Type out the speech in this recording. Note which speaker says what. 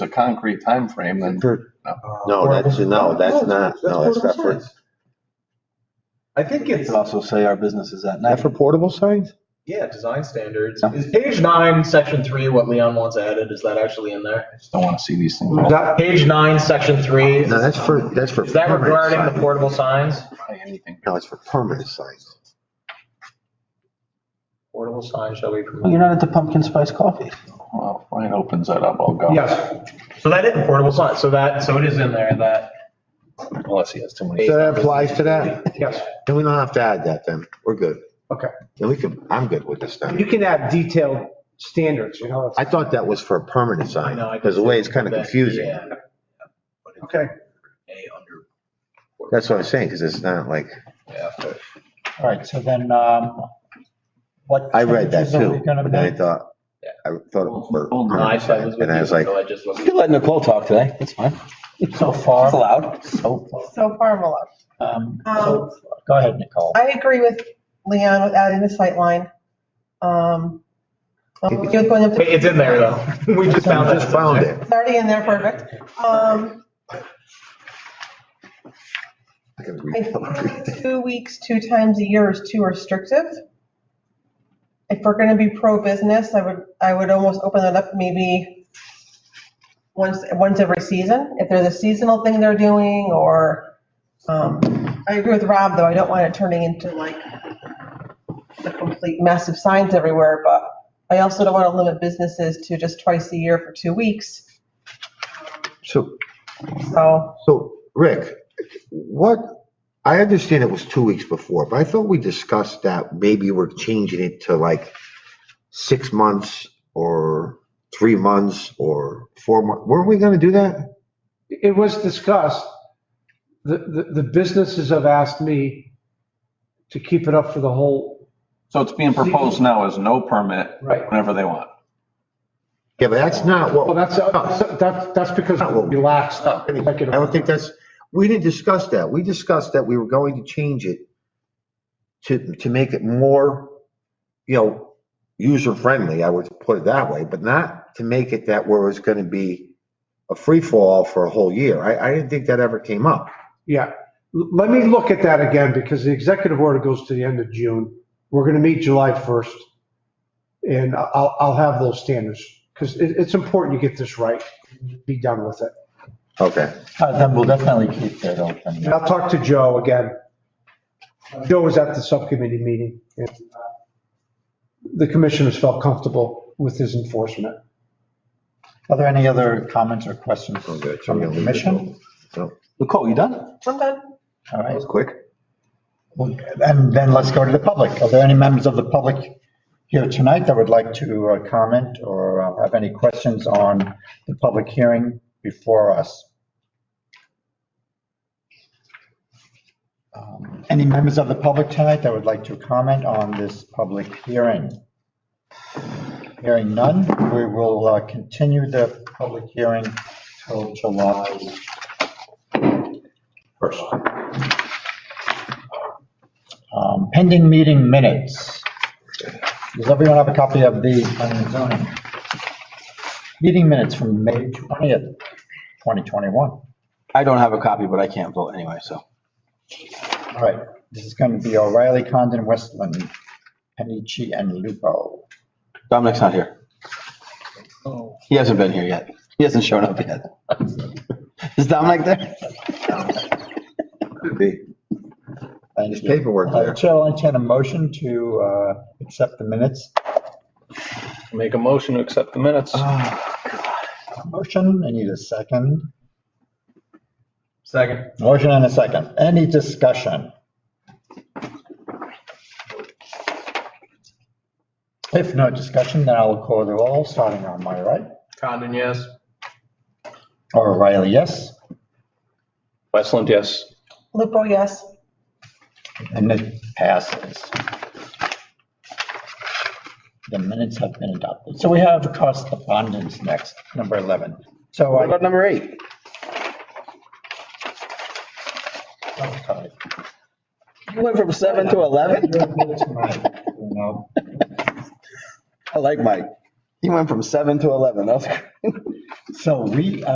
Speaker 1: a concrete timeframe, then
Speaker 2: for,
Speaker 3: No, that's, no, that's not, no, that's not for,
Speaker 4: I think
Speaker 1: we
Speaker 4: it's, uh,
Speaker 1: could also say our business is at
Speaker 2: not
Speaker 1: night.
Speaker 2: for portable signs?
Speaker 4: yeah, design standards.
Speaker 1: Yeah.
Speaker 4: Is page nine, section three, what Leon wants added? Is that actually in there?
Speaker 1: I just don't want to see these things. all
Speaker 2: That,
Speaker 4: Page nine, section three,
Speaker 3: no, that's for, that's for.
Speaker 4: is that
Speaker 3: permanent
Speaker 4: regarding the
Speaker 3: signs.
Speaker 4: portable signs?
Speaker 1: by anything.
Speaker 3: No, it's for permanent signs.
Speaker 4: Portable signs shall be permitted.
Speaker 5: You're not into pumpkin spice coffee.
Speaker 1: Well, if Ryan opens that up, I'll go.
Speaker 2: yes,
Speaker 4: So that is portable sign, so that, so it is in there that.
Speaker 1: Unless he has too many.
Speaker 3: So that applies to that?
Speaker 2: yes.
Speaker 3: Then we don't have to add that then. We're good.
Speaker 2: Okay.
Speaker 3: Then we can, I'm good with this
Speaker 2: You
Speaker 3: then.
Speaker 2: can have detailed standards, you know.
Speaker 3: I thought that was for a permanent sign,
Speaker 4: No, I
Speaker 3: because the way it's kind of
Speaker 4: that-
Speaker 3: confusing.
Speaker 4: yeah. But it's
Speaker 2: Okay.
Speaker 4: A under.
Speaker 3: That's what I'm saying, because it's not like,
Speaker 4: Yeah.
Speaker 5: All right, so then, um, what?
Speaker 3: I read that
Speaker 5: changes are we
Speaker 3: too,
Speaker 5: gonna
Speaker 3: but then I
Speaker 5: make?
Speaker 3: thought,
Speaker 4: Yeah.
Speaker 3: I thought it was for
Speaker 1: Hold on,
Speaker 4: No, I
Speaker 3: permanent
Speaker 4: said it
Speaker 3: signs,
Speaker 4: was with
Speaker 3: and I
Speaker 4: you,
Speaker 3: was like,
Speaker 4: so I just wasn't.
Speaker 5: You let Nicole talk today, that's fine. So far. It's allowed. So,
Speaker 6: So far, I'm allowed.
Speaker 5: um,
Speaker 6: Um,
Speaker 5: so- go ahead, Nicole.
Speaker 6: I agree with Leon with adding the sight line. Um, I'm okay with going up
Speaker 4: Wait,
Speaker 6: to-
Speaker 4: It's in there though. We just found
Speaker 3: I
Speaker 4: it.
Speaker 3: just found it.
Speaker 6: It's already in there, perfect. Um,
Speaker 3: I can
Speaker 6: I
Speaker 3: read-
Speaker 6: think two weeks, two times a year is too restrictive. If we're gonna be pro-business, I would, I would almost open it up maybe once, once every season, if there's a seasonal thing they're doing, or, um, I agree with Rob, though, I don't want it turning into like a complete mess of signs everywhere, but I also don't wanna limit businesses to just twice a year for two weeks,
Speaker 3: So,
Speaker 6: so,
Speaker 3: so Rick, what, I understand it was two weeks before, but I thought we discussed that maybe we're changing it to like six months or three months or four months. Weren't we gonna do that?
Speaker 2: It was discussed. The, the, the businesses have asked me to keep it up for the whole,
Speaker 1: So it's being proposed now as no permit
Speaker 2: right.
Speaker 1: whenever they want.
Speaker 3: Yeah, but that's not
Speaker 2: Well,
Speaker 3: what,
Speaker 2: that's,
Speaker 5: Oh,
Speaker 2: that's, that's because we relaxed.
Speaker 3: I don't think that's, we didn't discuss that. We discussed that we were going to change it to, to make it more, you know, user friendly, I would put it that way, but not to make it that where it's gonna be a free fall for a whole year. I, I didn't think that ever came up.
Speaker 2: Yeah, L- let me look at that again, because the executive order goes to the end of June. We're gonna meet July 1st. And I- I'll, I'll have those standards, because it, it's important you get this right, be done with it.
Speaker 3: Okay.
Speaker 5: Uh, Then we'll definitely keep that open.
Speaker 2: And I'll talk to Joe again. Joe was at the subcommittee meeting, and uh, the commissioners felt comfortable with his enforcement.
Speaker 5: Are there any other comments or questions
Speaker 3: I'm good.
Speaker 5: from the commission?
Speaker 3: So,
Speaker 5: Nicole, you done?
Speaker 6: sometimes
Speaker 5: All
Speaker 3: that
Speaker 5: right,
Speaker 3: was quick.
Speaker 5: and then let's go to the public. Are there any members of the public here tonight that would like to uh, comment or uh, have any questions on the public hearing before us? Um, Any members of the public tonight that would like to comment on this public hearing? Hearing none, we will uh, continue the public hearing till July first. Um, Pending meeting minutes. Does everyone have a copy of the planning and zoning? Meeting minutes from May 20th, 2021. All
Speaker 7: I don't have a copy, but I can't vote anyway, so.
Speaker 5: right, this is going to be O'Reilly, Condon, Westland, Panici, and Lupo.
Speaker 7: Dominic's not here. He hasn't been here yet. He hasn't shown up yet. Is Dominic there?
Speaker 3: Could be.
Speaker 5: Thank
Speaker 3: There's
Speaker 5: you.
Speaker 3: paperwork
Speaker 5: Uh,
Speaker 3: there.
Speaker 5: Chair will entertain a motion to uh, accept the minutes.
Speaker 1: Make a motion to accept the minutes.
Speaker 3: Ah.
Speaker 5: Motion, I need a second.
Speaker 4: Second.
Speaker 5: Motion and a second. Any discussion? If no discussion, then I'll call the roll, starting on my right.
Speaker 4: Condon, yes.
Speaker 5: O'Reilly, yes.
Speaker 1: Westland, yes.
Speaker 6: Lupo, yes.
Speaker 5: And it passes. The minutes have been adopted. So we have correspondence next, number 11. So
Speaker 7: What
Speaker 5: I,
Speaker 7: about Oh, number eight?
Speaker 5: I'm sorry.
Speaker 7: You went from seven to 11?
Speaker 5: You're good tonight, you know.
Speaker 7: I like Mike. He went from seven to 11. That was
Speaker 5: So we,